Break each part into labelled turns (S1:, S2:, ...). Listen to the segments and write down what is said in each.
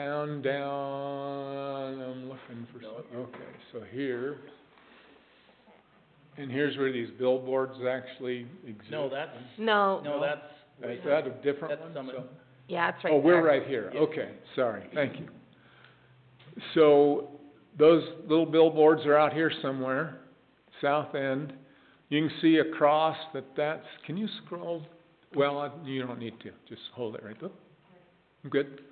S1: Town down, I'm looking for some, okay, so here. And here's where these billboards actually exist.
S2: No, that's,
S3: No,
S2: no, that's,
S1: Is that a different
S2: that's
S1: one?
S2: Summit.
S1: So-
S3: yeah, it's right
S1: Oh, we're
S3: there.
S1: right here,
S2: Yeah.
S1: okay, sorry, thank you. So, those little billboards are out here somewhere, south end. You can see across that that's, can you scroll? Well, I- you don't need to, just hold it right there. Good.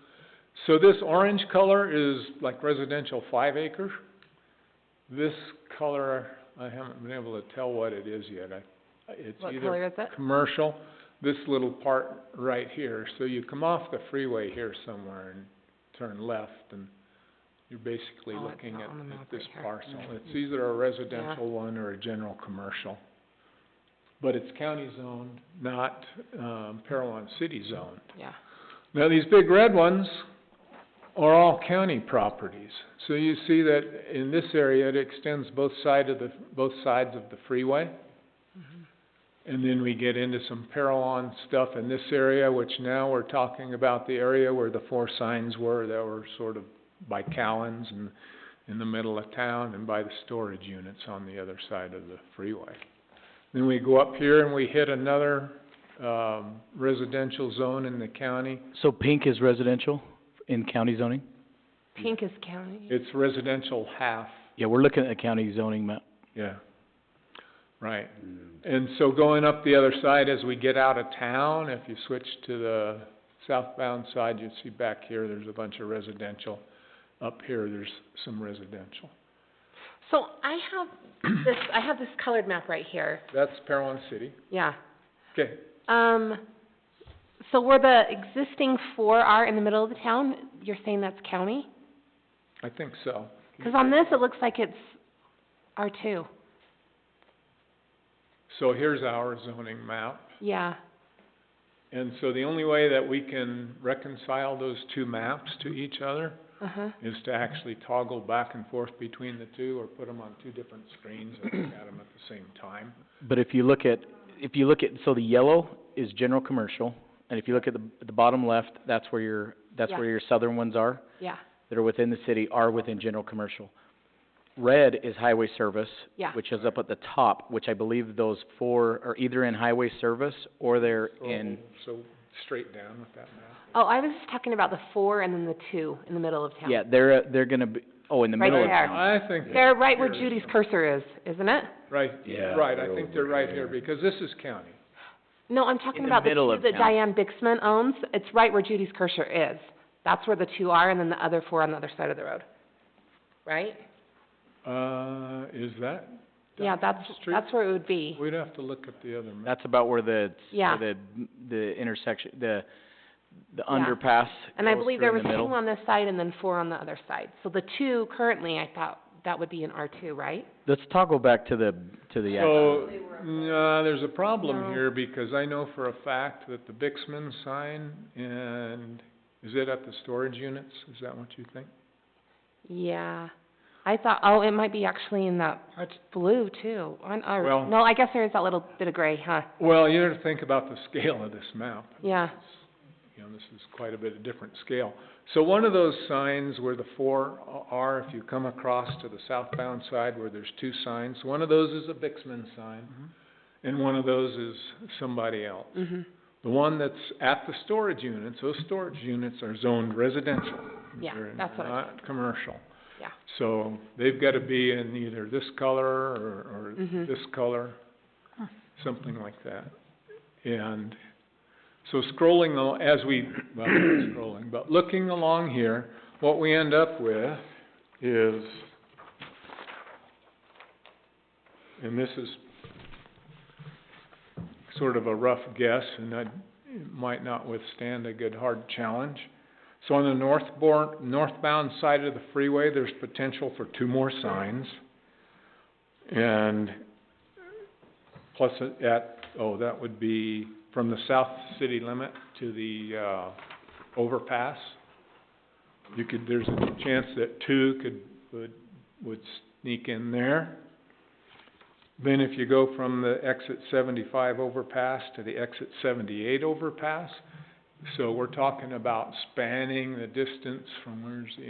S1: So this orange color is like residential five acre. This color, I haven't been able to tell what it is yet, I, it's
S3: What
S1: either
S3: color is it?
S1: commercial, this little part right here, so you come off the freeway here somewhere and turn left, and you're basically
S3: Oh, it's
S1: looking
S3: not
S1: at,
S3: on the
S1: at
S3: map
S1: this
S3: right here. Mm-hmm.
S1: parcel. It's either a residential one or a general commercial. But it's county zoned, not, um, Parowan city zoned.
S3: Yeah.
S1: Now, these big red ones are all county properties. So you see that in this area, it extends both side of the, both sides of the freeway. And then we get into some Parowan stuff in this area, which now we're talking about the area where the four signs were that were sort of by Cowan's and in the middle of town and by the storage units on the other side of the freeway. Then we go up here and we hit another, um, residential zone in the county.
S4: So pink is residential in county zoning?
S3: Pink is county.
S1: It's residential half,
S4: Yeah, we're looking at a county zoning map.
S1: yeah. Right, and so going up the other side as we get out of town, if you switch to the southbound side, you see back here, there's a bunch of residential. Up here, there's some residential.
S3: So I have this, I have this colored map right here,
S1: That's Parowan City,
S3: yeah.
S1: okay,
S3: Um, so where the existing four are in the middle of the town, you're saying that's county?
S1: I think so.
S3: Cause on this, it looks like it's R two,
S1: So here's our zoning map.
S3: yeah.
S1: And so the only way that we can reconcile those two maps to each other
S3: Uh-huh,
S1: is to actually toggle back and forth between the two or put them on two different screens and look at them at the same time.
S4: But if you look at, if you look at, so the yellow is general commercial, and if you look at the, the bottom left, that's where your, that's where your southern ones are,
S3: yeah,
S4: that are within the city, are within general commercial. Red is highway service,
S3: yeah,
S4: which is up at the top, which I believe those four are either in highway service or they're in,
S1: So, so straight down with that map.
S3: oh, I was just talking about the four and then the two in the middle of town.
S4: yeah, they're, they're gonna be, oh, in the
S3: Right
S4: middle of
S3: there.
S4: town.
S1: I think,
S3: They're right where Judy's cursor is, isn't it?
S1: right,
S4: Yeah,
S1: right, I think they're right here because this is county.
S3: No, I'm talking
S4: In the
S3: about the
S4: middle
S3: two
S4: of
S3: that
S4: town.
S3: Diane Bixman owns, it's right where Judy's Kirscher is. That's where the two are, and then the other four on the other side of the road, right?
S1: Uh, is that?
S3: Yeah,
S1: down
S3: that's,
S1: the street?
S3: that's where it would be.
S1: We'd have to look at the other map.
S4: That's about where the,
S3: Yeah.
S4: where the, the intersection, the, the
S3: Yeah.
S4: underpass
S3: And I
S4: goes
S3: believe
S4: through
S3: there
S4: in
S3: was
S4: the middle.
S3: two on this side and then four on the other side. So the two currently, I thought, that would be in R two, right?
S4: Let's toggle back to the, to the actual.
S1: So, nah, there's a problem
S3: No.
S1: here because I know for a fact that the Bixman sign and, is it at the storage units? Is that what you think?
S3: Yeah. I thought, oh, it might be actually in that
S1: That's-
S3: blue too, on
S1: Well-
S3: R, no, I guess there is that little bit of gray, huh?
S1: Well, you have to think about the scale of this map.
S3: Yeah,
S1: You know, this is quite a bit of different scale. So one of those signs where the four a- are, if you come across to the southbound side where there's two signs, one of those is a Bixman sign,
S3: Mm-hmm.
S1: and one of those is somebody else.
S3: mhm,
S1: The one that's at the storage units, those storage units are zoned residential.
S3: Yeah,
S1: They're
S3: that's what I
S1: Not commercial.
S3: Yeah.
S1: So they've gotta be in either this color or, or
S3: Mhm.
S1: this color, something like that. And so scrolling, al- as we, well, not scrolling, but looking along here, what we end up with is, and this is sort of a rough guess, and that it might not withstand a good hard challenge. So on the northbound, northbound side of the freeway, there's potential for two more signs. And plus it- at, oh, that would be from the south city limit to the, uh, overpass. You could, there's a chance that two could, would, would sneak in there. Then if you go from the exit seventy-five overpass to the exit seventy-eight overpass, So we're talking about spanning the distance from where's the